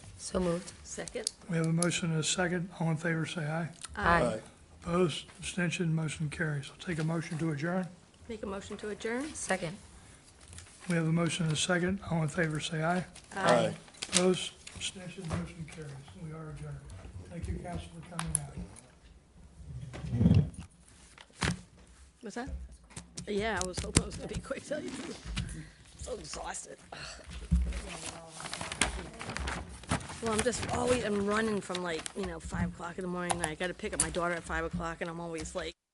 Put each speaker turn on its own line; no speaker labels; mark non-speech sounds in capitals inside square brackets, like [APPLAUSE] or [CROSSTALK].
So moved.
Second?
We have a motion and a second. All in favor, say aye.
Aye.
Opposed, abstention, motion carries. I'll take a motion to adjourn.
Make a motion to adjourn?
Second.
We have a motion and a second. All in favor, say aye.
Aye.
Opposed, abstention, motion carries. We are adjourned. Thank you, council, for coming out.
Was that? Yeah, I was hoping it was gonna be quick, [LAUGHS] tell you the truth. So exhausted. Well, I'm just always, I'm running from like, you know, five o'clock in the morning, and I gotta pick up my daughter at five o'clock, and I'm always like,